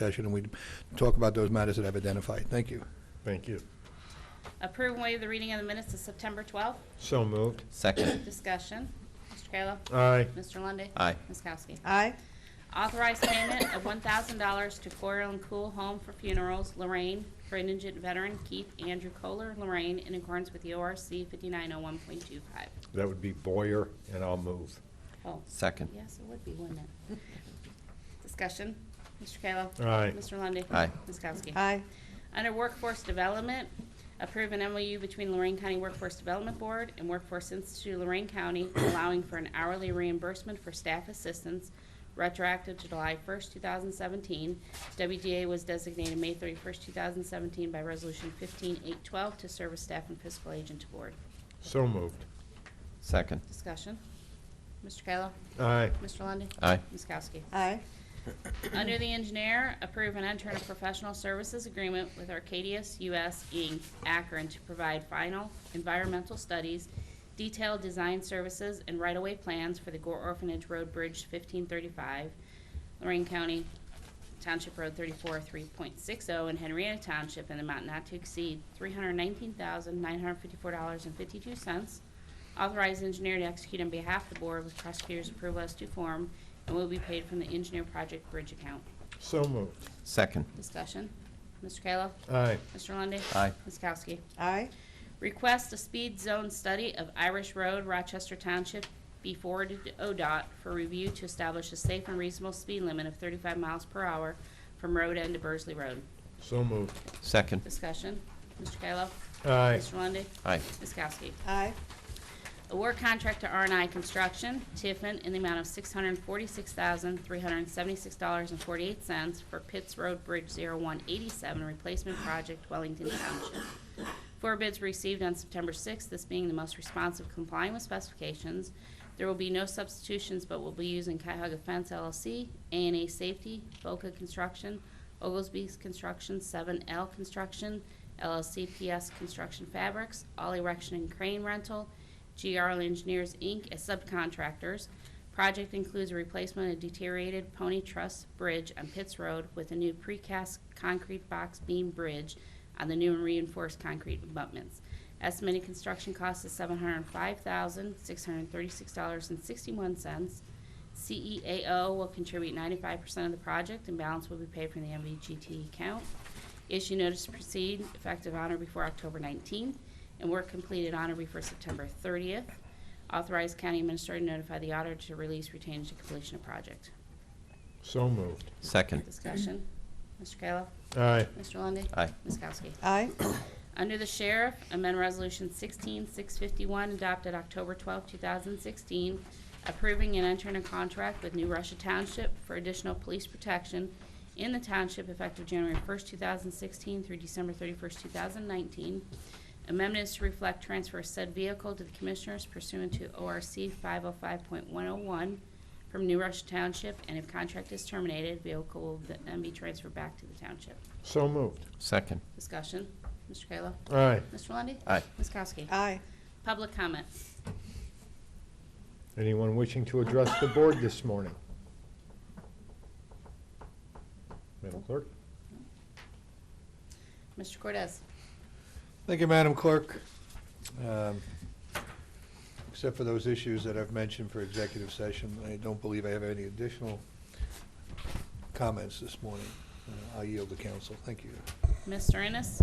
session, and we talk about those matters that I've identified. Thank you. Thank you. Approve and waive the reading of the minutes of September 12th. So moved. Second. Discussion. Mr. Kayla. Aye. Mr. Lundy. Aye. Ms. Kowski. aye, Authorized payment of $1,000 to Coral and Cool Home for Funerals, Lorraine, for indigent veteran Keith Andrew Kohler, Lorraine, in accordance with the ORC 5901.25. That would be Boyer, and I'll move. Oh, Second. yes, it would be, wouldn't it? Discussion. Mr. Kayla. Aye. Mr. Lundy. Aye. Ms. Kowski. aye, Under Workforce Development, approve an MOU between Lorraine County Workforce Development Board and Workforce Institute of Lorraine County allowing for an hourly reimbursement for staff assistance retroactive to July 1st, 2017. WDA was designated May 31st, 2017 by Resolution 15812 to serve as staff and fiscal agent to board. So moved. Second. Discussion. Mr. Kayla. Aye. Mr. Lundey. Aye. Ms. Kowski. aye, Under the engineer, approve and enter a professional services agreement with Arcadius US Inc., Akron, to provide final environmental studies, detailed design services, and right-of-way plans for the Gore Orphanage Road Bridge 1535, Lorraine County Township Road 34, 3.60, and oh Henrietta Township, in an amount not to exceed $319,954.52. Authorized engineer to execute on behalf of the board with prosecutor's approval as to form and will be paid from the engineer project bridge account. So moved. Second. Discussion. Mr. Kayla? Aye. Mr. Lundy. Aye. Ms. Kowski? aye, Request a speed zone study of Irish Road, Rochester Township, be forwarded to ODOT for review to establish a safe and reasonable speed limit of 35 miles per hour from road end to Burzley Road. So moved. Second. Discussion. Mr. Kayla? Aye. Mr. Lundy. Aye. Ms. Kowski? aye, Award contract to r and i Construction, Tiffin, in the amount of $646,376.48 for Pitts Road Bridge 0187 Replacement Project, Wellington Township. Four bids received on September 6th, this being the most responsive complying with specifications. There will be no substitutions, but will be using Cuyahoga Fence LLC, a and A Safety, Boca Construction, Oglesby Construction, 7L Construction, LLC PS Construction Fabrics, All Erection and Crane Rental, GRL Engineers, Inc. as subcontractors. Project includes a replacement of deteriorated Pony Truss Bridge on Pitts Road with a new precast concrete box beam bridge on the new and reinforced concrete abutments. Estimated construction cost is seven hundred and five thousand, six hundred and thirty-six dollars and sixty-one cents. CEAO will contribute ninety-five percent of the project and balance will be paid from the MVGT account. Issue notice to proceed effective on or before October 19th, and work completed on or before September 30th. Authorize county administrator to notify the auditor to release retained to completion of project. So moved. Second. Discussion. Mr. Kayla? Aye. Mr. Lundey? Aye. Ms. Kowski? aye, Under the Sheriff, amend Resolution 16651 adopted October 12, 2016, approving and entering a contract with New Russia Township for additional police protection in the township effective January 1, 2016 through December 31, 2019. Amendment is to reflect transfer of said vehicle to the Commissioners pursuant to ORC 505.101 from New Russia Township, and if contract is terminated, vehicle will then be transferred back to the township. So moved. Second. Discussion. Mr. Kayla? Aye. Mr. Lundy. Aye. Ms. Kowski? aye. Public comments. Anyone wishing to address the board this morning? Madam Clerk? Mr. Cortez. Thank you, Madam Clerk. Um, Except for those issues that I've mentioned for executive session, I don't believe I have any additional comments this morning. Uh, I yield to council. Thank you. Mr. Ennis.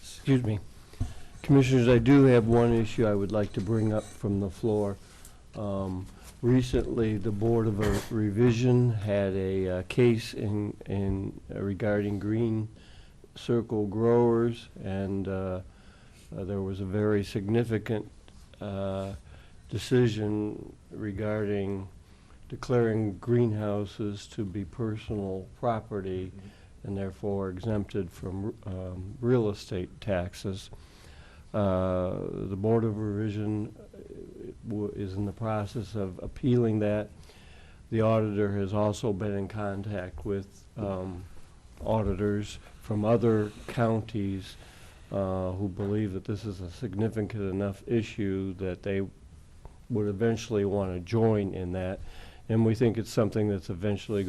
Excuse me. Commissioners, I do have one issue I would like to bring up from the floor. Um, Recently, the Board of Revision had a uh, case in, in uh, regarding green circle growers, and uh, uh, there was a very significant uh, decision regarding declaring greenhouses to be personal property and therefore exempted from um, real estate taxes. Uh, The Board of Revision uh, w- is in the process of appealing that. The auditor has also been in contact with um, auditors from other counties uh, who believe that this is a significant enough issue that they would eventually want to join in that. And we think it's something that's eventually